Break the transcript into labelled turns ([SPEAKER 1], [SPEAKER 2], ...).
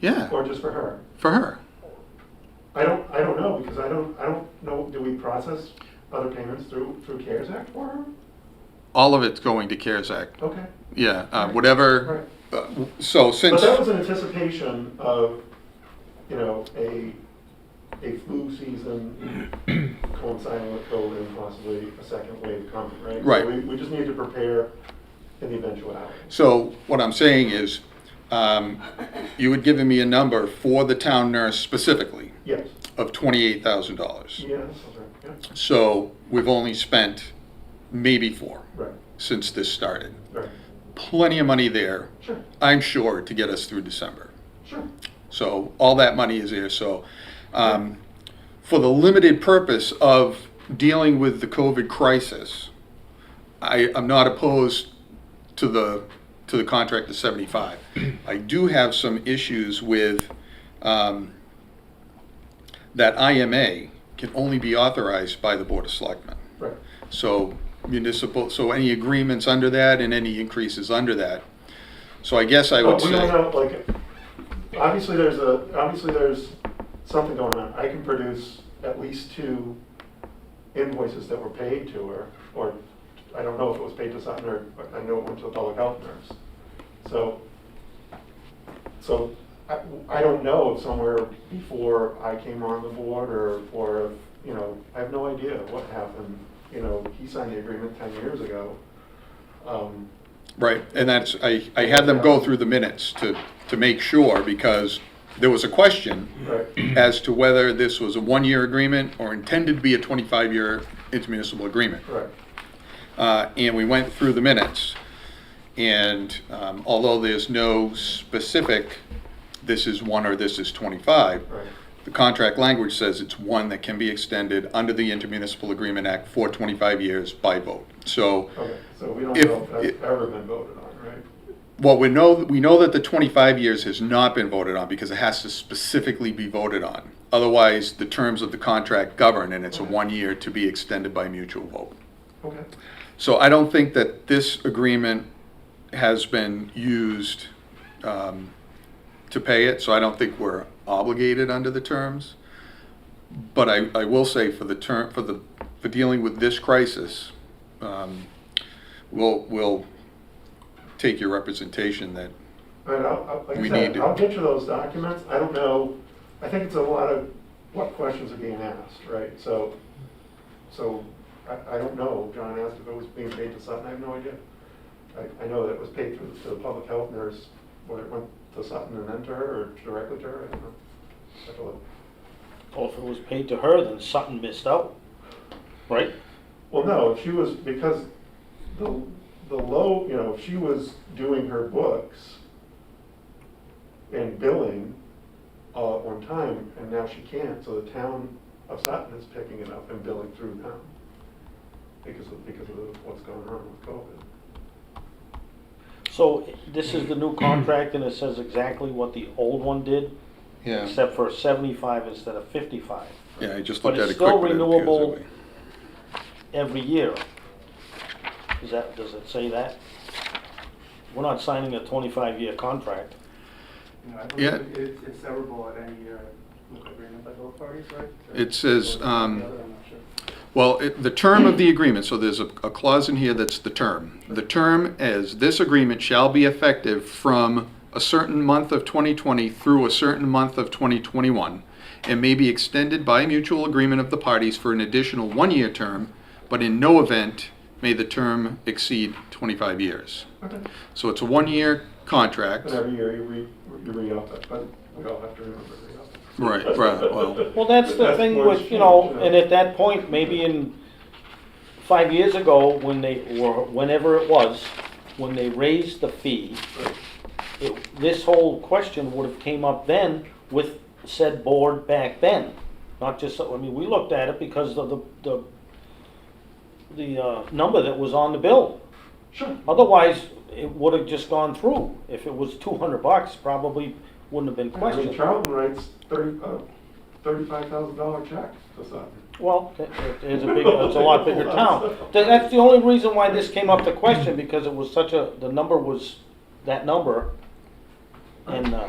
[SPEAKER 1] Yeah,
[SPEAKER 2] or just for her?
[SPEAKER 1] for her.
[SPEAKER 2] I don't, I don't know, because I don't, I don't know, do we process other payments through, through CARES Act for her?
[SPEAKER 1] All of it's going to CARES Act.
[SPEAKER 2] Okay.
[SPEAKER 1] Yeah, uh,
[SPEAKER 2] Right.
[SPEAKER 1] whatever. uh, So
[SPEAKER 2] But
[SPEAKER 1] since,
[SPEAKER 2] that was in anticipation of, you know, a, a flu season coinciding with COVID and possibly a second wave coming, right? So
[SPEAKER 1] Right.
[SPEAKER 2] We, we just need to prepare in the eventuality.
[SPEAKER 1] so what I'm saying is, um, you had given me a number for the town nurse specifically
[SPEAKER 2] Yes,
[SPEAKER 1] of twenty-eight thousand dollars.
[SPEAKER 2] yeah, that's right, yeah,
[SPEAKER 1] So we've only spent maybe four
[SPEAKER 2] right,
[SPEAKER 1] since this started.
[SPEAKER 2] right,
[SPEAKER 1] Plenty of money there,
[SPEAKER 2] sure,
[SPEAKER 1] I'm sure, to get us through December.
[SPEAKER 2] sure,
[SPEAKER 1] So all that money is there. So um, for the limited purpose of dealing with the COVID crisis, I, I'm not opposed to the to the contract of 75. I do have some issues with um, that IMA can only be authorized by the Board of Selectmen.
[SPEAKER 2] right,
[SPEAKER 1] So municipal, so any agreements under that and any increases under that. So I guess I
[SPEAKER 2] But
[SPEAKER 1] would
[SPEAKER 2] Oh, we
[SPEAKER 1] say.
[SPEAKER 2] don't know, like, obviously there's a, obviously there's something going on. I can produce at least two invoices that were paid to her, or I don't know if it was paid to Sutton or, or I know it went to the public health nurse. So, so I, I don't know if somewhere before I came on the board or, or, you know, I have no idea what happened. You know, he signed the agreement ten years ago. Um,
[SPEAKER 1] Right, and that's, I, I had them go through the minutes to, to make sure, because there was a question
[SPEAKER 2] right,
[SPEAKER 1] as to whether this was a one-year agreement or intended to be a twenty-five year intermunicipal agreement.
[SPEAKER 2] right,
[SPEAKER 1] Uh, and we went through the minutes, and, um, although there's no specific, this is one or this is twenty-five,
[SPEAKER 2] right.
[SPEAKER 1] the contract language says it's one that can be extended under the Intermunicipal Agreement Act for twenty-five years by vote. So,
[SPEAKER 2] Okay, so we don't
[SPEAKER 1] If-
[SPEAKER 2] know if that's
[SPEAKER 1] if-
[SPEAKER 2] ever been voted on, right?
[SPEAKER 1] Well, we know, we know that the 25 years has not been voted on because it has to specifically be voted on. Otherwise, the terms of the contract govern and it's a one year to be extended by mutual vote.
[SPEAKER 2] Okay,
[SPEAKER 1] So I don't think that this agreement has been used um, to pay it, so I don't think we're obligated under the terms. But I, I will say for the term, for the, for dealing with this crisis, um, we'll, we'll take your representation that,
[SPEAKER 2] and I'll, I'll- like I
[SPEAKER 1] We need
[SPEAKER 2] said,
[SPEAKER 1] to-
[SPEAKER 2] I'll get you those documents, I don't know, I think it's a lot of what questions are being asked, right? So, so, I, I don't know, John asked if it was being paid to Sutton, I have no idea. I, I know that it was paid through, to the public health nurse, whether it went to Sutton and then to her, or directly to her, I don't know. I have to look.
[SPEAKER 3] Well, if it was paid to her, then Sutton missed out, right?
[SPEAKER 2] Well, no, if she was, because the, the low, you know, if she was doing her books and billing all at one time, and now she can't, so the town of Sutton is picking it up and billing through now because of, because of what's going on with COVID.
[SPEAKER 3] So this is the new contract and it says exactly what the old one did,
[SPEAKER 1] yeah,
[SPEAKER 3] except for seventy-five instead of fifty-five
[SPEAKER 1] yeah, I just
[SPEAKER 3] But
[SPEAKER 1] looked at
[SPEAKER 3] it's
[SPEAKER 1] it quick.
[SPEAKER 3] still
[SPEAKER 1] but it appears that
[SPEAKER 3] renewable.
[SPEAKER 1] way.
[SPEAKER 3] every year. Is that, does it say that? We're not signing a twenty-five year contract.
[SPEAKER 4] No, I
[SPEAKER 1] Yeah.
[SPEAKER 4] believe it- it's, it's severable at any year with agreement by both parties, right? Or-
[SPEAKER 1] It says,
[SPEAKER 4] or
[SPEAKER 1] um,
[SPEAKER 4] the other, I'm not sure.
[SPEAKER 1] Well, it- the term of the agreement, so there's a a clause in here that's the term. The term is, this agreement shall be effective from a certain month of 2020 through a certain month of 2021, and may be extended by mutual agreement of the parties for an additional one-year term, but in no event may the term exceed 25 years.
[SPEAKER 2] Okay.
[SPEAKER 1] So it's a one-year contract.
[SPEAKER 2] And every year you re, you re-up it, but we all have to remember to re-up it.
[SPEAKER 1] Right, right, well,
[SPEAKER 3] Well, that's the
[SPEAKER 2] That's
[SPEAKER 3] thing
[SPEAKER 2] more
[SPEAKER 3] with, you know,
[SPEAKER 2] strange, yeah.
[SPEAKER 3] and at that point, maybe in five years ago, when they, or whenever it was, when they raised the fee,
[SPEAKER 2] Right.
[SPEAKER 3] it- this whole question would have came up then with said board back then. Not just, I mean, we looked at it because of the, the, the, uh, number that was on the bill.
[SPEAKER 2] Sure,
[SPEAKER 3] Otherwise, it would have just gone through. If it was two hundred bucks, probably wouldn't have been
[SPEAKER 2] I mean,
[SPEAKER 3] questioned.
[SPEAKER 2] Charlton writes thirty, uh, thirty-five thousand dollar check to Sutton.
[SPEAKER 3] Well, it- it's a big, it's a lot bigger town. Th- That's the only reason why this came up to question, because it was such a, the number was that number. And, uh,